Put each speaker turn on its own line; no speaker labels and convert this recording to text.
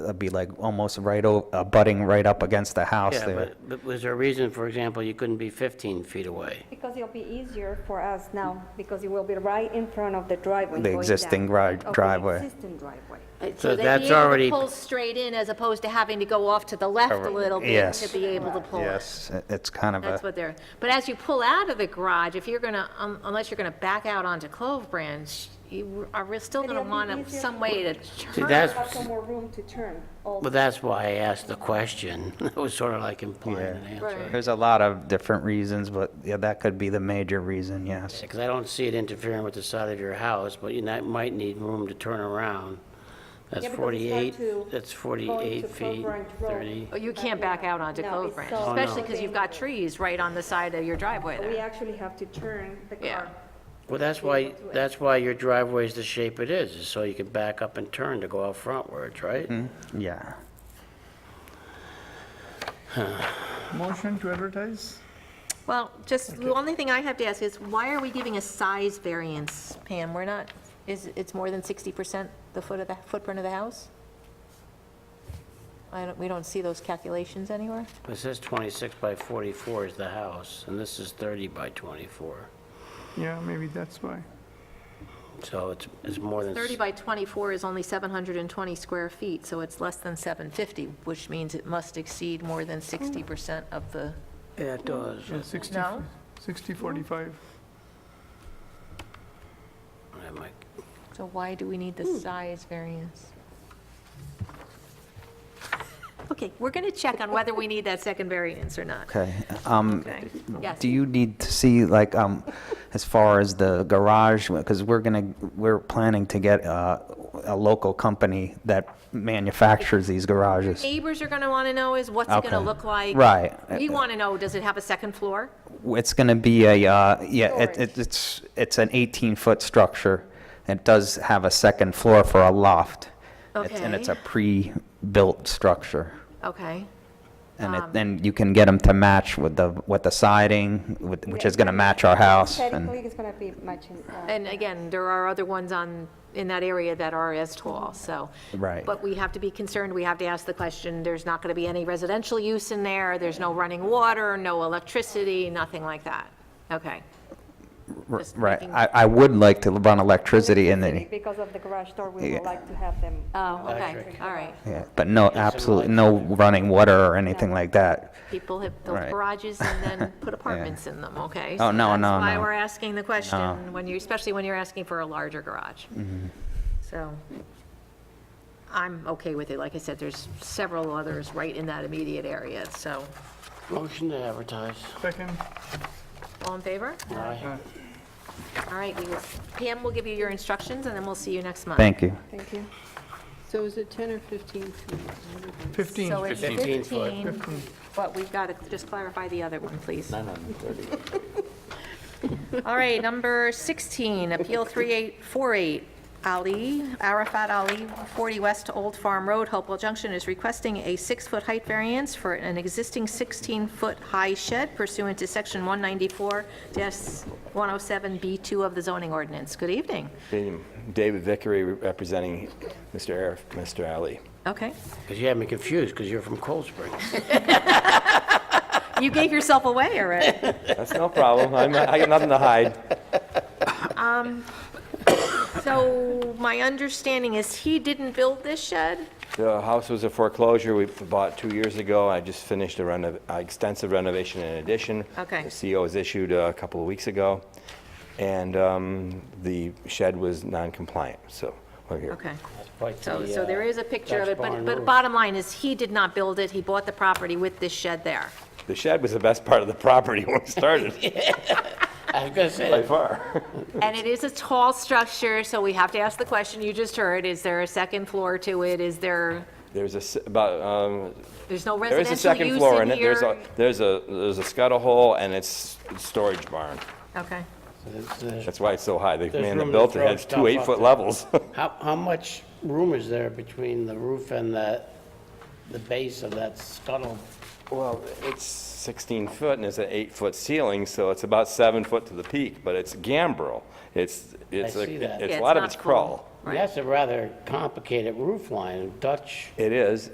that'd be like almost right, o- uh, butting right up against the house
Yeah,
there.
but, but was there a reason, for example, you couldn't be 15 feet away?
Because it'll be easier for us now, because it will be right in front of the driveway.
The
going down,
existing dri-
of the
driveway.
existing driveway.
Uh,
So
they'd be
that's
able to
already-
Pull straight in as opposed to having to go off to the left a
Correct.
little bit
Yes.
to be able to pull it.
Yes, it- it's kind of
That's
a,
what they're, but as you pull out of the garage, if you're gonna, um, unless you're gonna back out onto Clove Branch, you are re- still gonna
It'll be
want
easier.
some way to
See,
turn.
that's,
Got some more room to turn. also.
well, that's why I asked the question. It was sort of like implying
Yeah.
an
Right.
answer.
there's a lot of different reasons, but yeah, that could be the major reason, yes.
Because I don't see it interfering with the side of your house, but you might- might need room to turn around. That's
Yeah, because it's hard
48,
to
that's
go
48
into
feet,
Clover and Grove.
30.
Oh, You can't back out onto
No,
Clove
it's
Branch,
so
especially because you've got
dangerous.
trees right on the side of your driveway
We
there.
actually have to turn the
Yeah.
car.
Well, that's why, that's why your driveway is the shape it is, is so you can back up and turn to go out frontwards, right?
Mm-hmm. Yeah.
Motion to advertise?
Well, just, the only thing I have to ask is, why are we giving a size variance, Pam? We're not, is, it's more than 60% the foot of the, footprint of the house? I don't, we don't see those calculations anywhere?
It says 26 by 44 is the house, and this is 30 by 24.
Yeah, maybe that's why.
So it's, it's more than,
30 by 24 is only 720 square feet, so it's less than 750, which means it must exceed more than 60% of the...
yeah, it does.
Yeah, 60,
No?
60, 45.
I might-
So why do we need the size variance? Okay, we're going to check on whether we need that second variance or not.
Okay. Um,
Okay. Yes.
Do you need to see, like, um, as far as the garage, because we're gonna, we're planning to get uh, a local company that manufactures these garages.
Neighbors are going to want to know is, what's it going to
Okay.
look like?
Right.
We want to know, does it have a second floor?
It's gonna be a, uh, yeah, it- it- it's, it's an 18-foot structure. It does have a second floor for a loft. It's- And it's a
Okay.
pre-built structure.
Okay.
And
Um.
it, and you can get them to match with the, with the siding, with- which is gonna match our house. and-
Technically, it's gonna be matching. uh,
And again, there are other ones on, in that area that are as tall, so.
Right.
But we have to be concerned, we have to ask the question, there's not going to be any residential use in there, there's no running water, no electricity, nothing like that. Okay. Just
Right,
making-
I, I would like to run electricity in the,
Because of the garage door, we
Yeah.
would like to have them. uh,
Oh, okay, all right.
yeah, but no, absolutely, no running water or anything like that.
People have built
Right.
garages and then put apartments in them, okay?
Oh,
So
no, no,
That's why
no.
we're asking the question, when you, especially when you're asking for a larger garage.
Mm-hmm.
So I'm okay with it. Like I said, there's several others right in that immediate area, so.
Motion to advertise.
Second,
All in favor?
Aye.
All right, we will, Pam will give you your instructions, and then we'll see you next month.
Thank you.
Thank you.
So is it 10 or 15 feet?
15.
So it's
15 foot.
15, but we've got to just clarify the other one, please. All right, number 16, Appeal 3848, Ali, Arafat Ali, 40 West Old Farm Road, Hopewell Junction, is requesting a six-foot height variance for an existing 16-foot high shed pursuant to Section 194-107B2 of the zoning ordinance. Good evening.
Evening. David Vickery representing Mr. Arif, Mr. Ali.
Okay.
Because you had me confused, because you're from Cold Springs.
You gave yourself away already.
That's no problem. I'm not- I got nothing to hide.
So my understanding is he didn't build this shed?
The house was a foreclosure we bought two years ago. I just finished a renov, uh, extensive renovation and addition.
Okay.
The CO was issued uh, a couple of weeks ago, and um, the shed was non-compliant, so we're here.
Okay.
Like
So,
the,
so
uh,
there is a picture of
Dutch
it, but,
barn
but
roof.
bottom line is he did not build it. He bought the property with this shed there.
The shed was the best part of the property when we started,
I was gonna
by
say,
far.
And it is a tall structure, so we have to ask the question you just heard. Is there a second floor to it? Is there,
There's a, s- about, um,
there's no
there is a
residential
second
use
floor
in
in it. There's a,
here?
there's a, there's a scuttle hole, and it's storage barn.
Okay.
it's, uh,
That's why it's so high. They,
There's
man, they
room to
built it,
throw
has
stuff
two
up
eight-foot
there.
levels.
how, how much room is there between the roof and the, the base of that scuttle?
Well, it's 16 foot and it's an eight-foot ceiling, so it's about seven foot to the peak, but it's gambrel. It's, it's,
see that.
a
Yeah,
it's, a
it's
lot of
not
it's
full.
crawl.
That's a rather complicated roof line, Dutch
It is,